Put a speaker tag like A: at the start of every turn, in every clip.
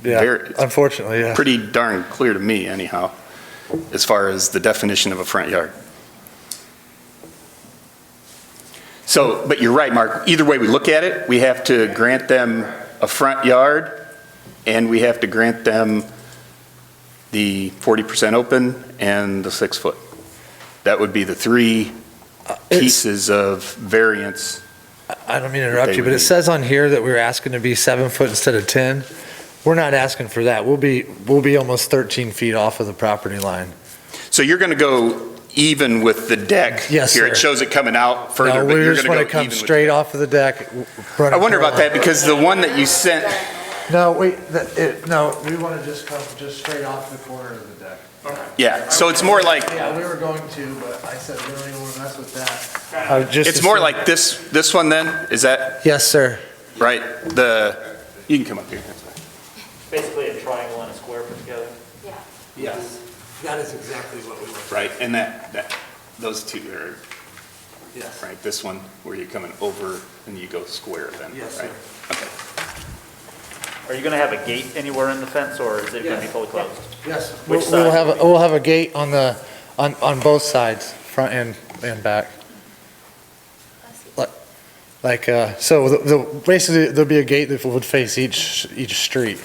A: very,
B: Yeah,
A: it's
B: unfortunately, yeah.
A: pretty darn clear to me anyhow, as far as the definition of a front yard. So, but you're right, Mark. Either way we look at it, we have to grant them a front yard, and we have to grant them the 40% open and the six-foot. That would be the three
B: Uh, It's-
A: pieces of variance.
B: I don't mean to interrupt
A: they
B: you,
A: would
B: but it
A: need.
B: says on here that we were asking to be seven foot instead of 10. We're not asking for that. We'll be, we'll be almost 13 feet off of the property line.
A: So you're going to go even with the deck?
B: Yes,
A: Here, it
B: sir.
A: shows it coming out further,
B: No,
A: but
B: we
A: you're going
B: just
A: to go
B: want
A: even
B: to
A: with the
B: come straight off of the deck. w- run
A: I wonder about
B: parallel.
A: that, because the one that you sent,
B: No, wait, that- it- no, we want to just come just straight off the corner of the deck.
A: yeah, so it's more like,
B: Yeah, we were going to, but I said, we don't even want to mess with that.
A: it's more like this, this one then, is that
B: Yes, sir.
A: right? The, you can come up here. that's fine.
C: Basically a triangle and a square put together.
A: Yes.
B: That is exactly what we want.
A: Right, and that, that, those two are,
B: Yes.
A: right, this one, where you're coming over and you go square then, right?
B: Yes, sir.
A: Okay.
C: Are you gonna have a gate anywhere in the fence, or is it gonna be
B: Yes.
C: fully closed?
B: Yes. We'll
C: Which
B: we'll
C: side?
B: have, a- we'll have a gate on the, on, on both sides, front and, and back. Like- Like, uh, so the- the, basically, there'll be a gate that would face each, each street.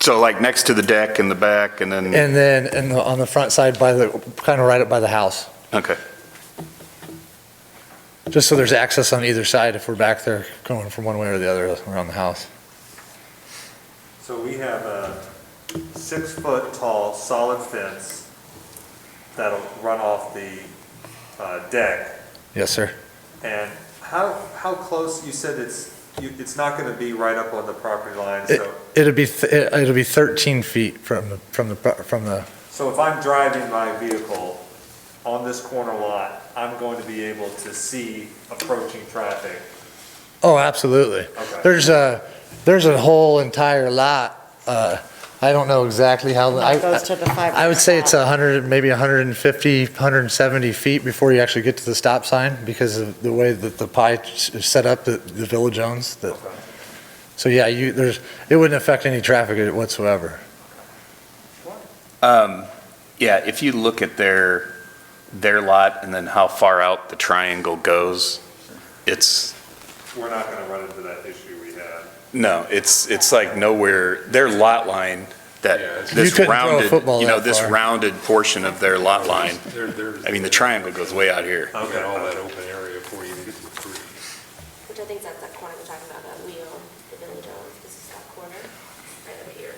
A: So like next to the deck in the back and then,
B: And then, and the- on the front side by the, kind of right up by the house,
A: okay.
B: just so there's access on either side if we're back there going from one way or the other around the house.
D: So we have a six-foot-tall solid fence that'll run off the uh, deck.
B: Yes, sir.
D: And how, how close, you said it's, you- it's not going to be right up on the property line,
B: It-
D: so,
B: It'll be, th- it- it'll be 13 feet from, the from the, pro- from the,
D: so if I'm driving my vehicle on this corner lot, I'm going to be able to see approaching traffic.
B: oh, absolutely.
D: Okay.
B: There's a, there's a whole entire lot, uh, I don't know exactly how, I,
E: That goes to the five.
B: I would say it's 100, maybe 150, 170 feet before you actually get to the stop sign because of the way that the pie is set up, that the village owns. that-
D: Okay.
B: So yeah, you, there's, it wouldn't affect any traffic whatsoever.
A: Um, yeah, if you look at their, their lot and then how far out the triangle goes, it's,
D: We're not going to run into that issue we had.
A: No, it's, it's like nowhere, their lot line, that,
B: You
A: this
B: couldn't throw a
A: rounded,
B: football
A: you know,
B: that
A: this
B: far.
A: rounded portion of their lot line. I mean, the triangle goes way out here.
F: I've got all
D: Okay.
F: that open area before you even get to the tree.
G: Which I think is at that corner we're talking about, that we own, the village owns, this is that corner, right over here.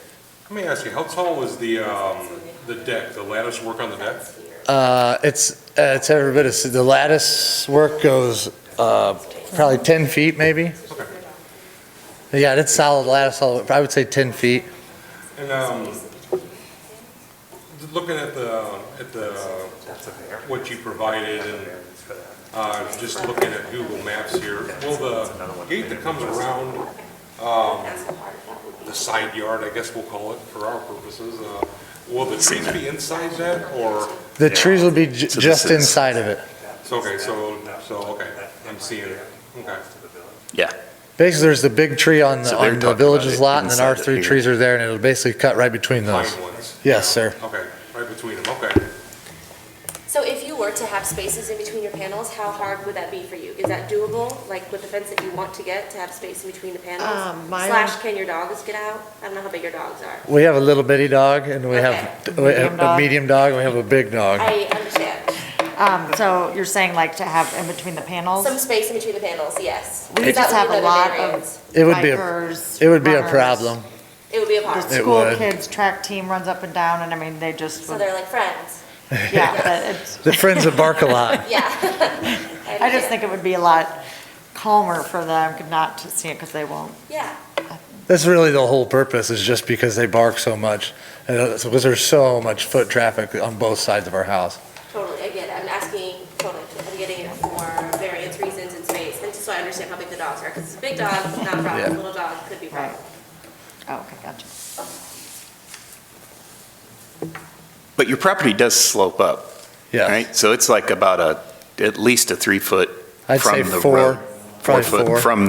F: Let me ask you, how tall was the, um, the deck, the lattice work on the deck?
G: That's here.
B: Uh, It's, uh, it's every bit, of- the lattice work goes uh, probably 10 feet maybe. Yeah, it's solid lattice, all- I would say 10 feet.
F: And, um, looking at the, at the, what you provided and, uh, just looking at Google Maps here, will the gate that comes around, um,
G: That's how hard that would be.
F: the side yard, I guess we'll call it for our purposes, uh, will the trees be inside that or,
B: The trees will be ju-
A: So this
B: just
A: is-
B: inside of it.
F: so, okay, so, so, okay, I'm seeing it, okay.
B: Basically, there's the big tree on the,
A: So they're
B: on
A: talking
B: the
A: about
B: village's
A: it
B: lot and then our
A: inside of
B: three
A: here.
B: trees are there and it'll basically cut right between those.
F: Pine ones,
B: Yes, sir.
F: okay, right between them, okay.
G: So if you were to have spaces in between your panels, how hard would that be for you? Is that doable, like with the fence that you want to get, to have space in between the panels?
E: Um, my-
G: Slash, can your dogs get out? I don't know how big your dogs are.
B: We have a little bitty dog and we have we have
E: Medium
B: a
E: dog.
B: medium dog and we have a big dog.
G: I understand.
E: Um, so you're saying like to have in between the panels?
G: Some space in between the panels, yes.
E: We
G: That
E: just
G: would
E: have
G: be
E: a
G: another
E: lot of
G: variance.
B: It would be, a
E: bikers,
B: it would be a
E: runners.
B: problem.
G: It would be a
E: The
G: part,
B: It
E: school
B: would.
E: kids' track team runs up and down and I mean, they just,
G: so
E: would-
G: they're like friends,
E: yeah, but it's,
B: The friends that bark a lot.
G: yeah.
E: I just
G: understand.
E: think it would be a lot calmer for them not to see it because they won't.
G: Yeah.
B: That's really the whole purpose, is just because they bark so much, and it's because there's so much foot traffic on both sides of our house.
G: Totally, I get it. I'm asking, totally, I'm getting it for various reasons in space, and just so I understand how big the dogs are, because a big dog, not a
B: Yeah.
G: problem, little dog could be a problem.
E: Oh, okay, gotcha.
A: But your property does slope up,
B: Yeah,
A: right? So it's like about a, at least a three-foot
B: I'd say
A: from the road.
B: four, probably
A: foot
B: four.
A: From